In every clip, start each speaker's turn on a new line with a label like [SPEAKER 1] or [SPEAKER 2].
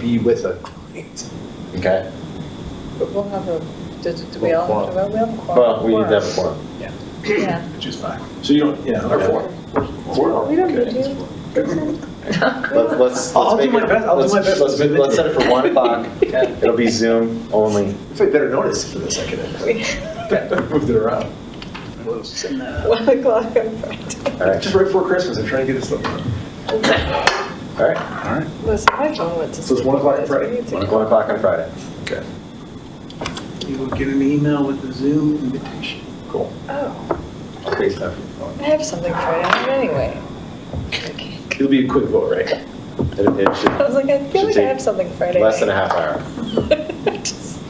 [SPEAKER 1] be with a client.
[SPEAKER 2] Okay,
[SPEAKER 3] But we'll have a, does it- do we all have to vote? We have a quorum.
[SPEAKER 2] well, we need to have a quorum.
[SPEAKER 3] Yeah.
[SPEAKER 1] Which is fine. So you don't, yeah.
[SPEAKER 2] Or four.
[SPEAKER 1] Four?
[SPEAKER 3] We don't need
[SPEAKER 1] Okay.
[SPEAKER 3] to.
[SPEAKER 2] Let's, let's.
[SPEAKER 1] I'll
[SPEAKER 2] let's
[SPEAKER 1] do
[SPEAKER 2] make
[SPEAKER 1] my
[SPEAKER 2] it-
[SPEAKER 1] best, I'll do
[SPEAKER 2] let's-
[SPEAKER 1] my best.
[SPEAKER 2] Let's, make- let's set it for one o'clock. It'll be Zoom only.
[SPEAKER 1] If I better notice for the second. Moved it around.
[SPEAKER 3] One o'clock on Friday.
[SPEAKER 2] All right,
[SPEAKER 1] Just right before Christmas, I'm trying to get this done.
[SPEAKER 2] all right.
[SPEAKER 3] Listen, I don't want to.
[SPEAKER 1] So it's one o'clock on Friday?
[SPEAKER 3] We need to-
[SPEAKER 2] One o'clock on Friday.
[SPEAKER 1] Okay,
[SPEAKER 4] You will get an email with the Zoom invitation.
[SPEAKER 1] cool.
[SPEAKER 3] Oh,
[SPEAKER 2] Great stuff.
[SPEAKER 3] I have something Friday night anyway. Okay.
[SPEAKER 1] It'll be a quick vote, right?
[SPEAKER 2] It it
[SPEAKER 3] I was
[SPEAKER 2] should,
[SPEAKER 3] like, I feel like I have something Friday night.
[SPEAKER 2] less than a half hour.
[SPEAKER 3] Just-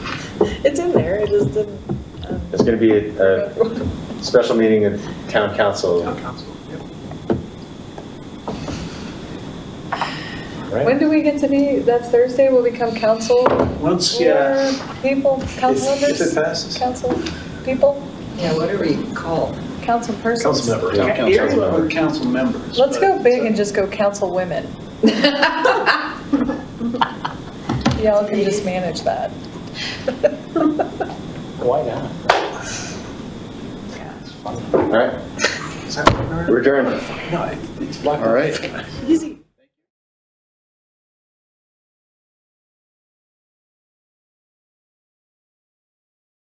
[SPEAKER 3] It's in there, it just didn't. um,
[SPEAKER 2] It's going to be a, a special meeting of town council.
[SPEAKER 4] Town council. Yep.
[SPEAKER 3] When do we get to be, that's Thursday, we'll become council?
[SPEAKER 4] Once, uh, yeah,
[SPEAKER 3] People, council
[SPEAKER 1] If- If it
[SPEAKER 3] members,
[SPEAKER 1] passes.
[SPEAKER 3] council people,
[SPEAKER 5] Yeah, whatever you call.
[SPEAKER 3] council persons.
[SPEAKER 1] Council member.
[SPEAKER 2] Town council
[SPEAKER 4] area
[SPEAKER 2] member.
[SPEAKER 4] or council members.
[SPEAKER 3] Let's
[SPEAKER 4] but uh,
[SPEAKER 3] go big and
[SPEAKER 4] it's
[SPEAKER 3] just go council women. Y'all can just manage that.
[SPEAKER 2] Why not? All right,
[SPEAKER 1] Is that-
[SPEAKER 2] we're adjourned.
[SPEAKER 1] No, it- it's
[SPEAKER 6] All right.
[SPEAKER 3] Easy